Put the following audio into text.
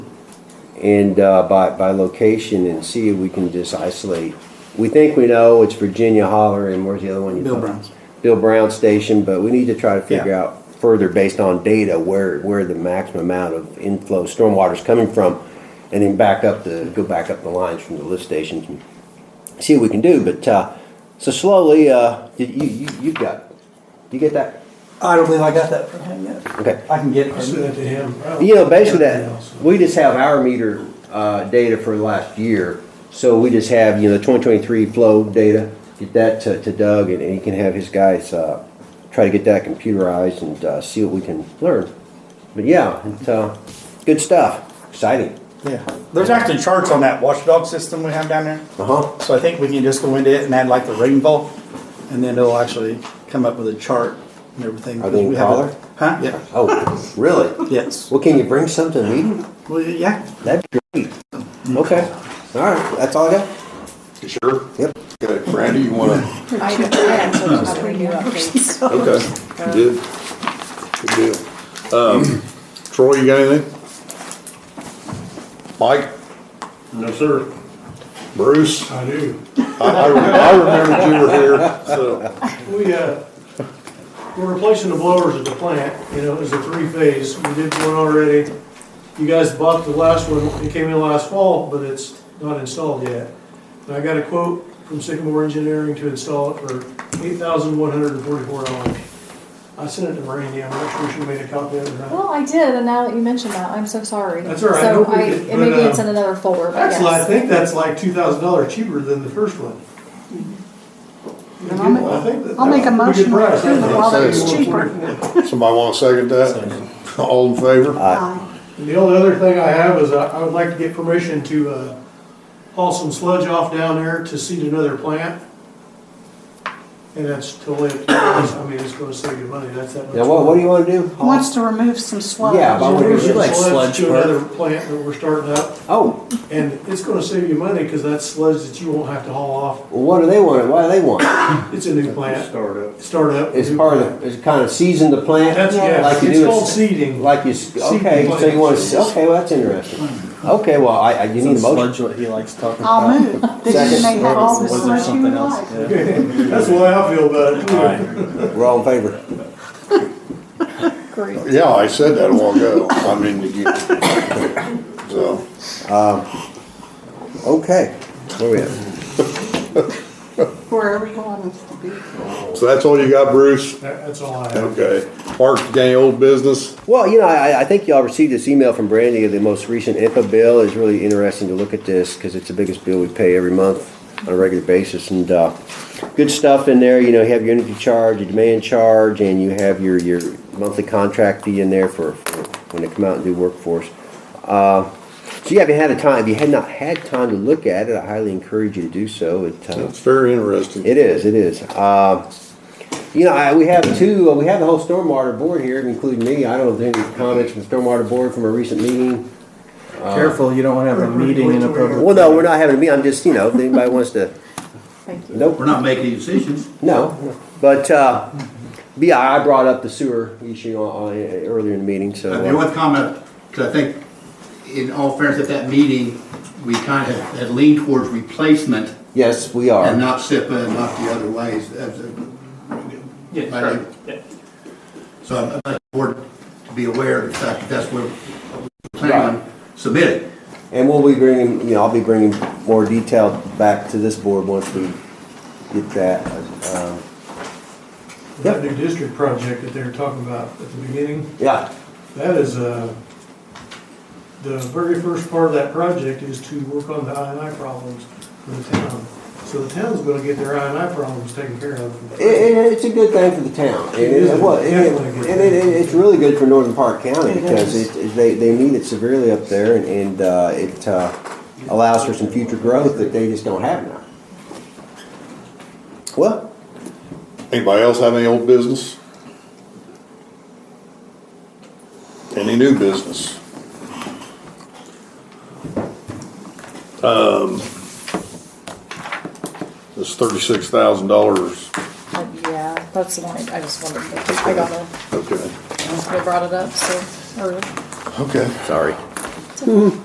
and uh, by, by location and see if we can just isolate. We think we know it's Virginia Holler and where's the other one? you Bill called? Brown's. Bill Brown Station, but we need to try to figure Yeah. out further based on data where, where the maximum amount of inflow stormwater is coming from. And then back up the, go back up the lines from the lift stations and see what we can do. But, uh, so slowly, uh, you, you, you've got, you get that? I don't believe I got that from him yet. Okay. I can get it I from said that you. to him. probably. You know, basically Yeah, that, so- we just have our meter, uh, data for last year. So we just have, you know, the twenty twenty-three flow data, get that to, to Doug and and he can have his guys, uh, try to get that computerized and, uh, see what we can learn. But yeah, it's, uh, good stuff, exciting. Yeah. There's actually charts on that watchdog system we have down there. Uh-huh. So I think we can just go into it and add like the rainfall, and then it'll actually come up with a chart and everything. Are they in We have a- color? Huh? Yeah. Oh, really? Yes. Well, can you bring some to the meeting? Well, yeah. That'd be great. Okay, all right, that's all I got? You Sure? Yep. Okay, Brandy, you wanna? I had some other new updates. Okay, you did. Good deal. Um, Troy, you got anything? Mike, No, sir. Bruce, I do. I, I I remembered you were here, so, We, uh, we're replacing the blowers at the plant, you know, it was a three-phase, we did one already. You guys bought the last one, it came in last fall, but it's not installed yet. And I got a quote from Sycamore Engineering to install it for eight thousand one hundred and forty-four dollars. I sent it to Randy, I'm not sure she made a copy of it or not. Well, I did, and now that you mention that, I'm so sorry. That's all right, So no I, big deal, and maybe but, it's um, in another folder, but That's, like- I yes. think that's like two thousand dollars cheaper than the first one. I'll make- I think that- I'll make a that's good motion to price, approve I it think. while it's cheaper. somebody wanna second that? All in favor? Aye. And the only other thing I have is I I would like to get permission to uh, haul some sludge off down there to seed another plant. And that's totally, up to us. I mean, it's gonna save you money, that's that much. Now, what, what do you wanna do? Wants to remove some sludge. Yeah, but I would- Permission You like sludge sludge, To Bert? another plant that we're starting up, Oh, and it's gonna save you money, because that's sludge that you won't have to haul off. well, what do they want, why do they want? it? It's a new plant, Startup. start up. It's part of, the- it's kind of season the plant? That's, yeah, like you it's do a- called seeding. Like you, s- okay, so you want to, okay, well, that's interesting. Okay, well, I, I, you need a motion. Sludge what he likes talking I'll uh, about. move, that you may have all the Was there sludge you something would else? like. Yeah. That's the way I feel about it. All right. We're all in favor. Great. Yeah, I said that a while ago, I mean, you, so, Okay, where we at? Wherever you want us to be. so that's all you got, Bruce? That- That's all I have. Okay, Mark, you got any old business? Well, you know, I, I think y'all received this email from Brandy, the most recent IPA bill. It's really interesting to look at this because it's the biggest bill we pay every month on a regular basis. And, uh, good stuff in there, you know, you have your energy charge, your demand charge, and you have your, your monthly contract fee in there for, for when they come out and do workforce. Uh, so yeah, if you had a time, if you had not had time to look at it, I highly encourage you to do so. It, uh, It's very interesting. It is, it is. Uh, You know, I, we have two, uh, we have the whole stormwater board here, including me. I don't think any comments from the stormwater board from a recent meeting. Careful, you don't want to have a meeting in a public. Well, no, we're not having a meeting. I'm just, you know, if anybody wants to, Thank you. nope, We're not making decisions. no. But, uh, yeah, I brought up the sewer issue on, on, earlier in the meeting, so. uh, I mean, one comment, because I think in all fairness, at that meeting, we kind of had leaned towards replacement Yes, we and are. not SIPA and not the other ways. as a- Yeah, I sure. do. So I'd like the board to be aware of the fact that that's where we're planning on submitting. And we'll be bringing, you know, I'll be bringing more detail back to this board once we get that. uh, That new district project that they were talking about at the beginning. Yeah, That is, uh, the very first part of that project is to work on the I and I problems for the town. So the town's gonna get their I and I problems taken care of. It, it, it's a good thing for the town. And It is it, well, it, definitely a good and it, it- it's really good for Northern Park County It because is. it, it- they, they need it severely up there and, and, uh, it, uh, allows for some future growth that they just don't have now. Well, Anybody else have any old business? Any new business? Um, this thirty-six thousand dollars, Uh, Yeah, that's the one I I just wondered, but I got okay, Oh. it, they brought it up, so, or okay. sorry.